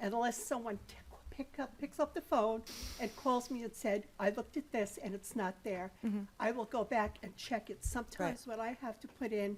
unless someone t- pick up, picks up the phone and calls me and said, I looked at this and it's not there, Mm-hmm. I will go back and check it. Sometimes when I have to put in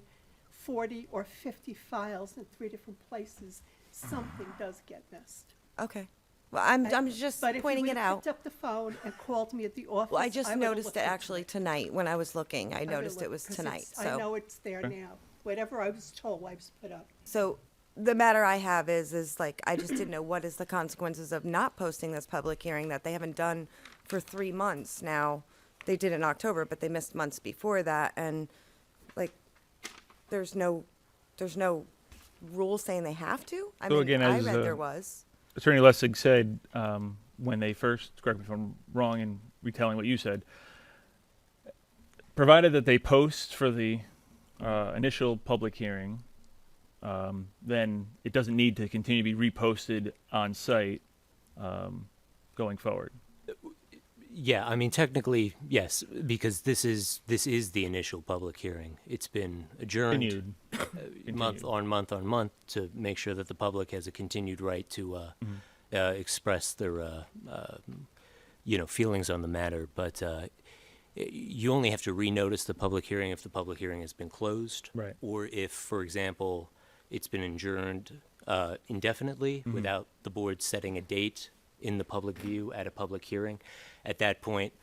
forty or fifty files in three different places, something does get missed. Okay. Well, I'm, I'm just But if you pointing would it have out. picked up the phone and called me at the office, Well, I just would've noticed looked it at actually tonight when I was looking. I I would've noticed it looked, was 'cause tonight, it's- I know so. it's there now. Whatever I was told, I was put up. So the matter I have is, is like, I just didn't know what is the consequences of not posting this public hearing that they haven't done for three months now. They did in October, but they missed months before that, and like, there's no, there's no rule saying they have to? I So mean, again, I as, read uh, there was. Attorney Lessig said um, when they first, correct me if I'm wrong in retelling what you said, provided that they post for the uh, initial public hearing, um, then it doesn't need to continue to be reposted on site um, going forward. Yeah, I mean technically, yes, because this is this is the initial public hearing. It's been adjourned Continued. month on month on month to make sure that the public has a continued right to uh, Mm-hmm. uh, express their uh, uh, you know feelings on the matter. But uh, y- you only have to renotice the public hearing if the public hearing has been closed, Right. Or if, for example, it's been adjourned uh, indefinitely Mm-hmm. without the board setting a date in the public view at a public hearing. At that point,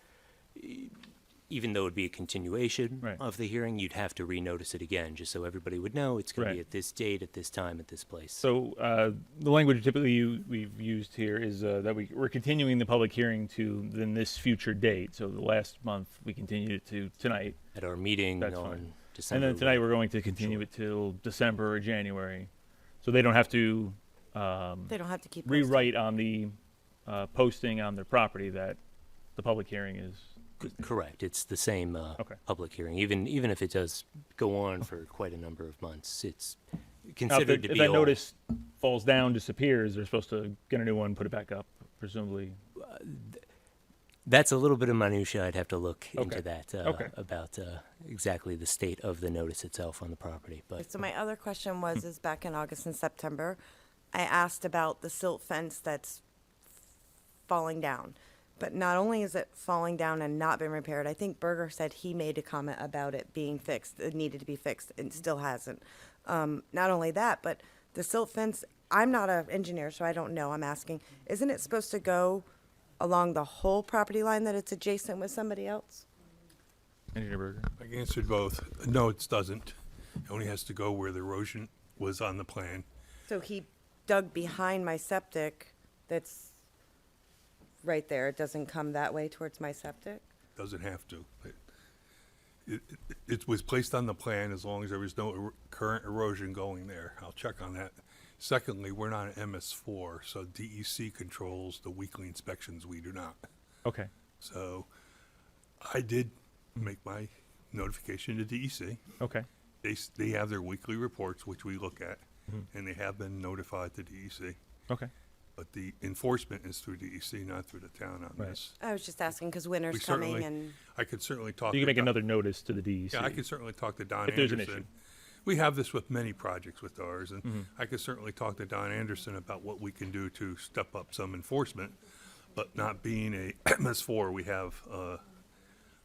even though it'd be a continuation Right. of the hearing, you'd have to renotice it again, just so everybody would know it's going to Right. be at this date, at this time, at this place. So uh, the language typically you, we've used here is uh, that we, we're continuing the public hearing to then this future date. So the last month we continued it to tonight. at our meeting That's on fine. December, and then tonight we're going to continue Sure. it till December or January, so they don't have to um, They don't have to keep posting. rewrite on the uh, posting on their property that the public hearing is. C- correct. It's the same uh, Okay. public hearing, even even if it does go on for quite a number of months. It's Now, if, considered the- to if be that old. notice falls down, disappears, they're supposed to get a new one, put it back up, presumably. That's a little bit of minutia. I'd have to look Okay. into that uh, Okay. about uh, exactly the state of the notice itself on the property. But So my other question was, is back in August and September, I asked about the silt fence that's falling down. But not only is it falling down and not been repaired, I think Berger said he made a comment about it being fixed, it needed to be fixed, and still hasn't. Um, not only that, but the silt fence, I'm not an engineer, so I don't know, I'm asking, isn't it supposed to go along the whole property line that it's adjacent with somebody else? Engineer Berger. I answered both. No, it doesn't. It only has to go where the erosion was on the plan. So he dug behind my septic that's right there. It doesn't come that way towards my septic? Doesn't have to. It- It, it- it was placed on the plan as long as there was no er- current erosion going there. I'll check on that. Secondly, we're not an MS4, so DEC controls the weekly inspections. We do not. Okay. So I did make my notification to DEC. Okay. They, s- they have their weekly reports, which we look at, and they have been notified to E DEC. Okay. But the enforcement is through DEC, not through the town on Right. this. I was just asking because We winter's coming certainly, and, I could certainly talk. You to can make Don- another notice to the E DEC. Yeah, I could certainly talk to Don If there's an Mm-hmm. Anderson. We have this with many projects with ours, and I could certainly talk to Don Anderson about what we can do to step up some enforcement. But not being a MS4, we have, uh,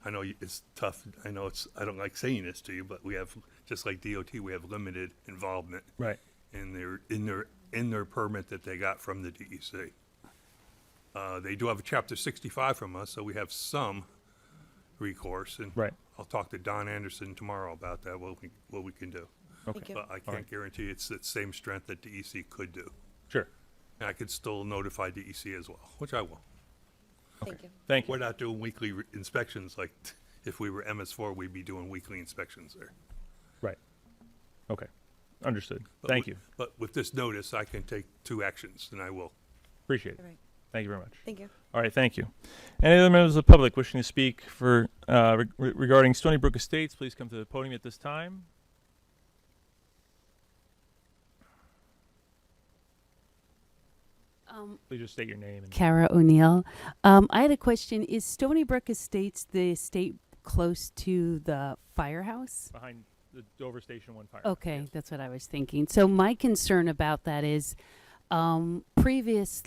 I know you- it's tough, I know it's, I don't like saying this to you, but we have, just like DOT, we have limited involvement Right. in their, in their, in their permit that they got from the DEC. Uh, they do have a chapter sixty-five from us, so we have some recourse, and Right. I'll talk to Don Anderson tomorrow about that, what we, what we can do. thank you. But I can't guarantee it's the same strength that DEC could do. Sure. And I could still notify DEC as well, which I will. Thank you. Thank you. We're not doing weekly re- inspections like, t- if we were MS4, we'd be doing weekly inspections there. Right. Okay. Understood. But Thank you. with- But with this notice, I can take two actions, and I will. Appreciate All it. right. Thank you very much. Thank you. All right, thank you. Any other members of the public wishing to speak for uh, re- regarding Stony Brook Estates, please come to the podium at this time. Um, Please just state your name. And Kara O'Neill. Um, I had a question. Is Stony Brook Estates the estate close to the firehouse? behind the Dover Station One Fire. Okay, that's what I was thinking. So my concern about that is um, previous